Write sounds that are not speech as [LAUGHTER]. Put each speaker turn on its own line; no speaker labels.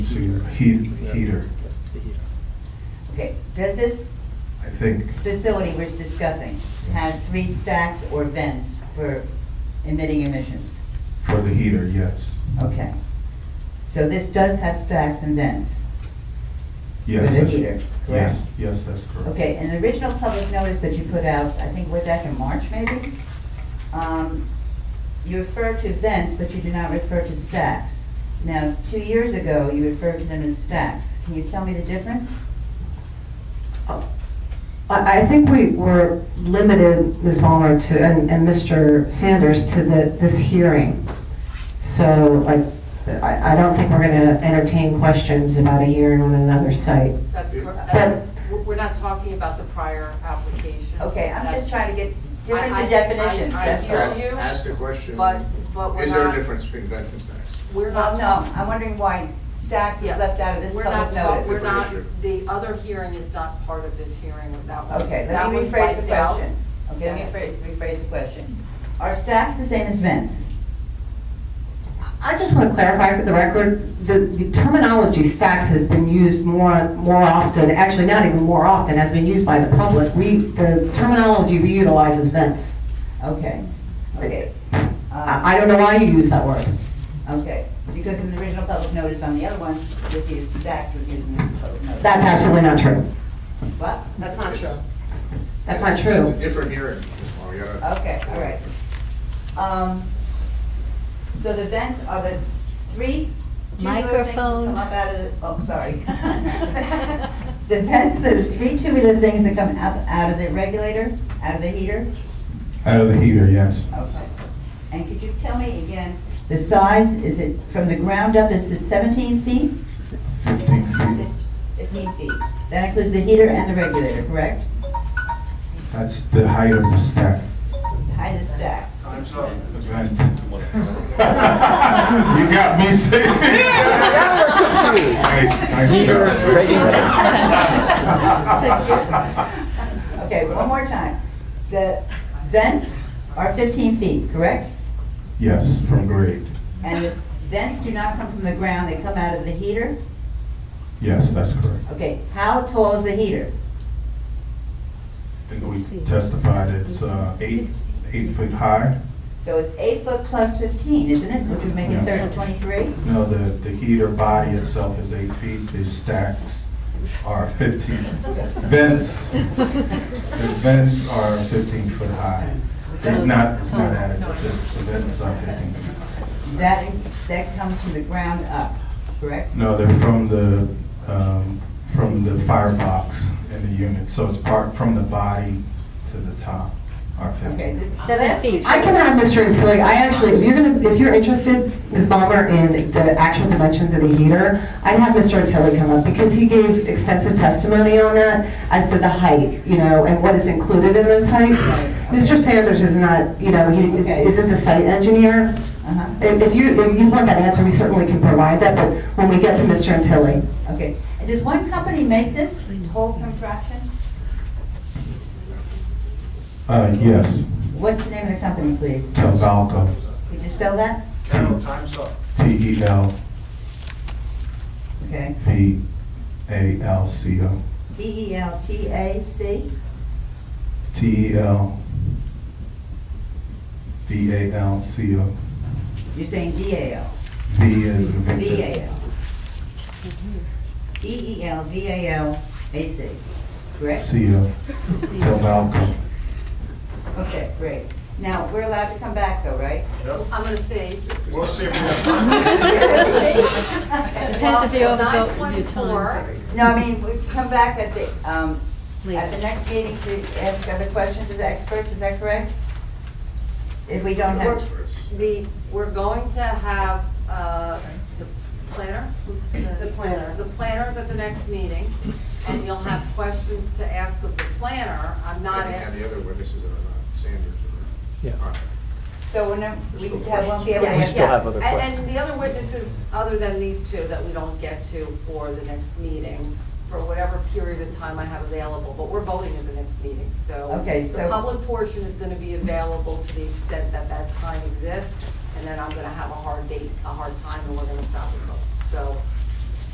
Heat, heater,
Okay, does this
I think,
facility we're discussing have three stacks or vents for emitting emissions?
for the heater, yes.
Okay. So this does have stacks and vents.
Yes.
For the
that's-
heater, correct?
Yes, yes, that's correct.
Okay, and the original public notice that you put out, I think, was that in March maybe? Um, You refer to vents, but you do not refer to stacks. Now, two years ago, you referred to them as stacks. Can you tell me the difference?
I I think we were limited, Ms. Muller, to, and and Mr. Sanders, to the, this hearing. So, like, I I don't think we're going to entertain questions about a hearing on another site.
That's correct.
But-
Um,
Uh, we're- We're not talking about the prior application.
Okay, I'm just trying to get difference
I- I-
in definitions,
I- I
that's all.
hear you.
Ask the question.
But, but we're
Is there a
not,
difference between vents and stacks?
we're
Well,
not.
no, um, I'm wondering why stacks was
Yeah.
left out of this
We're
public
not, talk- we're
Different
notice.
not,
issue.
the other hearing is not part of this hearing, that was.
Okay,
that
let me
was
rephrase the
wiped out.
[LAUGHS] question. Okay, let me rephrase- rephrase the question. Are stacks the same as vents?
I just want to clarify for the record, the the terminology stacks has been used more, more often, actually not even more often, has been used by the public. We, the terminology we utilize is vents.
Okay, okay. Um,
I I don't know why you use that word.
Okay, because in the original public notice on the other one, this is stacks was used in the public notice.
That's absolutely not true.
What?
That's not true.
That's not
It's
true.
a different hearing, Oh, Ms. Moore, you gotta-
Okay, all right. Um, So the vents are the three, two little things that
Microphone.
come up out of the, oh, sorry. [LAUGHS] The vents are the three tubular things that come up out of the regulator, out of the heater?
Out of the heater, yes.
Okay. And could you tell me again, the size, is it, from the ground up, is it 17 feet?
Fifteen feet,
15 feet. That includes the heater and the regulator, correct?
that's the height of the stack.
Height of the stack.
Vent. You got me saying. Nice, nice
Heater,
job.
Okay, one more time. The vents are 15 feet, correct?
Yes, from grade,
And the vents do not come from the ground, they come out of the heater?
yes, that's correct.
Okay, how tall is the heater?
I think we testified it's uh, eight, eight foot high.
So it's eight foot plus 15, isn't it? Which would make it 30, 23?
No, the, the heater body itself is eight feet, the stacks are fifteen. Vents, the vents are fifteen foot high. It's not, it's not adequate, the the vents are fifteen feet. high.
That, that comes from the ground up, correct?
No, they're from the, um, from the firebox in the unit, so it's part, from the body to the top are
Okay.
fifteen.
th-
Seven
that's-
feet.
I can have Mr. Antilli, I actually, if you're gonna, if you're interested, Ms. Balmer, in the actual dimensions of the heater, I'd have Mr. Antilli come up, because he gave extensive testimony on that, as to the height, you know, and what is included in those heights. Mr. Sanders is not, you know, he isn't the site engineer.
uh-huh.
If if you, if you want that answer, we certainly can provide that, but when we get to Mr. Antilli.
Okay. And does one company make this whole contraption?
Uh, yes,
What's the name of the company, please?
Telvalco,
Could you spell that?
T E L
Okay.
V A L C O.
D E L T A C?
T E L V A L C O.
You're saying D A L?
V as in
V
Victor.
A L. D E L V A L A C, correct?
C O. Telvalco.
Okay, great. Now, we're allowed to come back though, right?
I'm gonna say.
We'll see if we
[LAUGHS]
Depends if you
Well,
overbuilt your time.
9.4,
No, I mean, we come back at the, um, at the
Later.
next meeting to ask other questions of the experts, is that correct? If we don't have,
Experts.
The, we're going to have uh, the planner? The planner. The planners at the next meeting, and you'll have questions to ask of the planner. I'm not,
And
a-
the other witnesses that are not Sanders or.
Yeah.
All right.
so whenever, we have one be able to
Yeah. We
ask.
still have
And
other
and the other witnesses, other than these two, that we don't get to for the next meeting, for whatever period of time I have available, but we're voting at the next meeting, so.
Okay, so-
The public portion is gonna be available to the extent that that time exists, and then I'm gonna have a hard date, a hard time, and we're gonna stop the vote. So